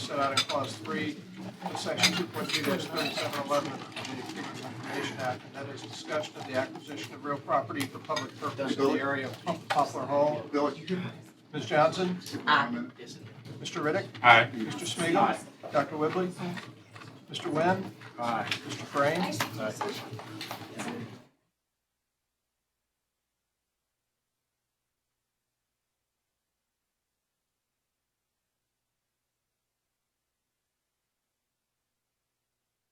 set out in clause three of section two point two thirty-seven eleven of the Freedom of Information Act, and that is discussion of the acquisition of real property for public purpose in the area of Poplar Hole. Bill, if you could. Ms. Johnson? Aye. Mr. Riddick? Aye. Mr. Smigiel, Dr. Whibley? Mr. Wen? Aye. Mr. Frame?